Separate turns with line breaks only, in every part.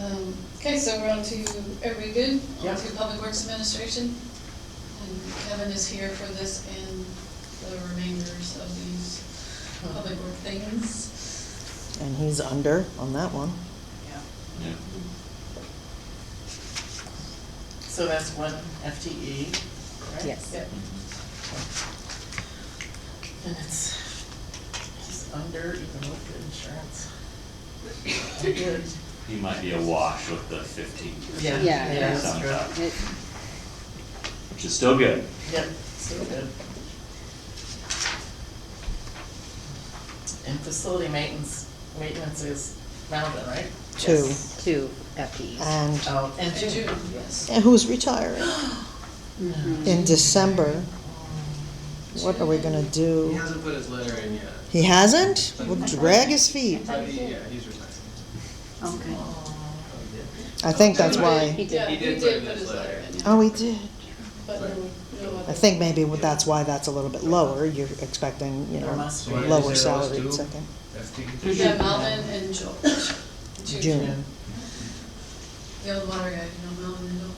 Um, Okay, so we're on to, are we good?
Yeah.
On to Public Works Administration. And Kevin is here for this and the remainders of these public work things.
And he's under on that one.
Yeah.
Yeah.
So that's one FTE, right?
Yes.
Yep. And it's, he's under even with the insurance. I'm good.
He might be awash with the fifteen
Yeah,
percent.
Yeah,
yeah,
yeah.
that's true.
It-
Which is still good.
Yep, so good. And facility maintenance, maintenance is Melvin, right?
Two.
Yes.
Two FTEs.
And
Oh, and
And June,
June.
yes.
and who's retiring
Mhm.
in December. What are we gonna
He
do?
hasn't put his letter in yet.
He hasn't? We'll drag his feet.
But he, yeah, he's retiring.
Okay.
Oh,
I think that's
He
why.
did,
He
he
did
did put his letter in.
Oh, he did.
But no, no other.
I think maybe that's why that's a little bit lower. You're expecting, you
There
know,
must be.
lower salary in second.
That's
Yeah, Melvin and Joel.
June.
The old water guy, you know, Melvin and Joel.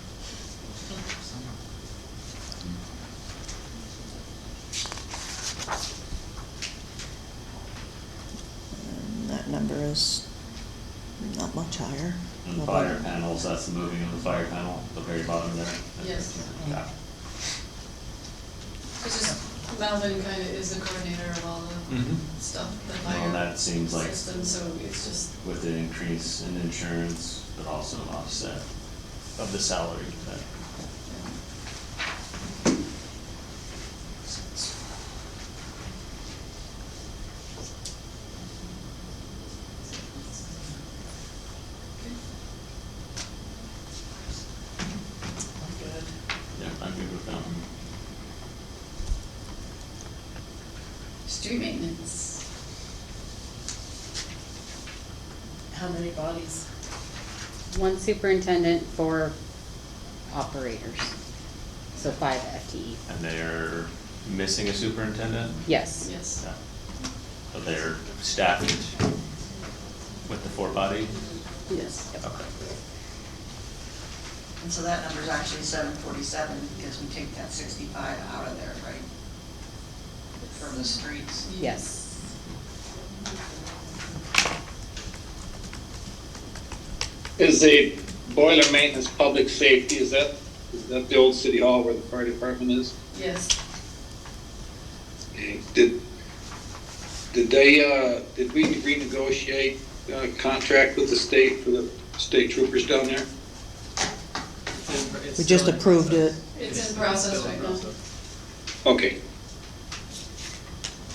And That number is not much higher.
And fire panels, that's the moving of the fire panel, the very bottom there.
Yes.
Yeah.
It's just Melvin kind of is the coordinator of all
Mhm.
the stuff, the
Well,
fire
that seems like
system, so it's just,
with the increase in insurance, but also an offset of the salary that.
Good.
Yeah, I'm good with that one.
street maintenance.
How many bodies?
One superintendent, four operators. So five E FTE.
And they're missing a superintendent?
Yes.
Yes.
Yeah. So they're staffed with the four body?
Yes.
Okay.
And so that number's actually seven forty-seven, because we take that sixty-five out of there, right? From the streets.
Yes.
Is the boiler maintenance public safety, is that, is that the old city hall where the fire department is?
Yes,
Did, did they, uh, did we renegotiate a contract with the state for the state troopers down there?
We just approved it.
it's in process right now.
Okay,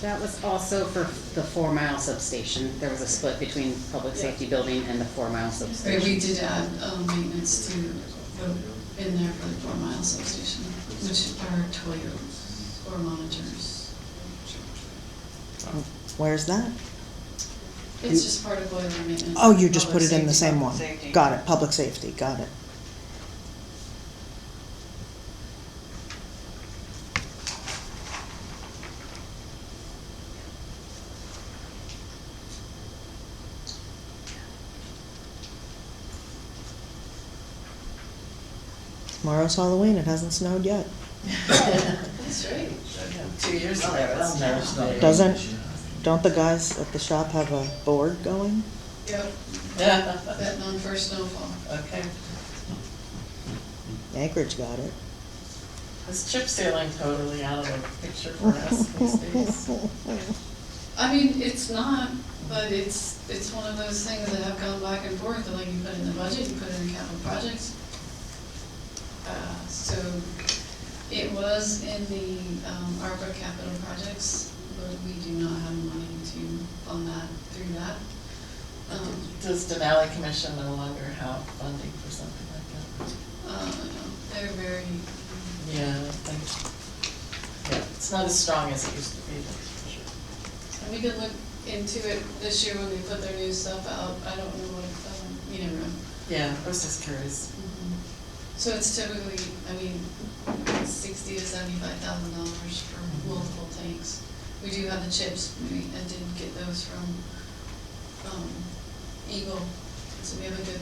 That was also for the four mile substation. There was a split between public safety building and the four mile
But we
substation.
did add, um, maintenance to, the- in there for the four mile substation, which are Toyos or monitors.
Where's that?
It's just part of boiler maintenance.
Oh, you just put
Public
it in the
safety.
same one.
public safety.
Got it, public safety, got it. Tomorrow's Halloween, it hasn't snowed yet.
That's right.
Two years ago, that's never.
Doesn't, don't the guys at the shop have a board going?
Yep,
Yeah,
that non-first snowfall.
okay.
Anchorage got it.
Is chip sealing totally out of the picture for us these days?
I mean, it's not, but it's, it's one of those things that have gone back and forth, like you put it in the budget, you put it in capital projects. Uh, So it was in the um, ARPA capital projects, but we do not have money to fund that through that. Um,
Does Denali Commission no longer have funding for something like that?
uh, They're very,
Yeah, I think, yeah, it's not as strong as it used to be, that's for sure.
and we could look into it this year when they put their new stuff out, I don't know what, um, you never know.
Yeah, I was just curious.
Mm-hmm. So it's typically, I mean, sixty to seventy-five thousand dollars for multiple tanks. We do have the chips, we, I did get those from, um, Eagle, so we have a good